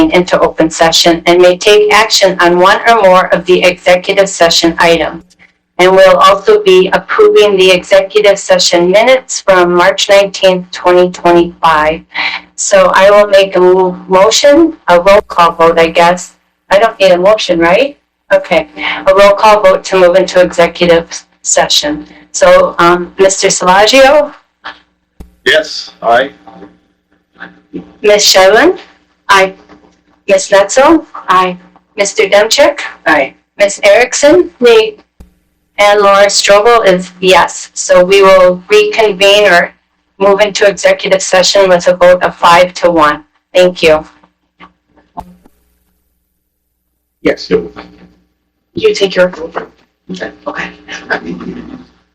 into open session and may take action on one or more of the executive session items. And will also be approving the executive session minutes from March 19th, 2025. So I will make a mo- motion, a roll call vote, I guess. I don't need a motion, right? Okay, a roll call vote to move into executive session. So, um, Mr. Salagio, Yes, aye. Ms. Shylin? Aye. Ms. Netzel? Aye. Mr. Demchuk? Aye. Ms. Erickson? Nay. And Laura Strobel is yes. So we will reconvene or move into executive session with a vote of five to one. Thank you. Yes. You take your vote. Okay.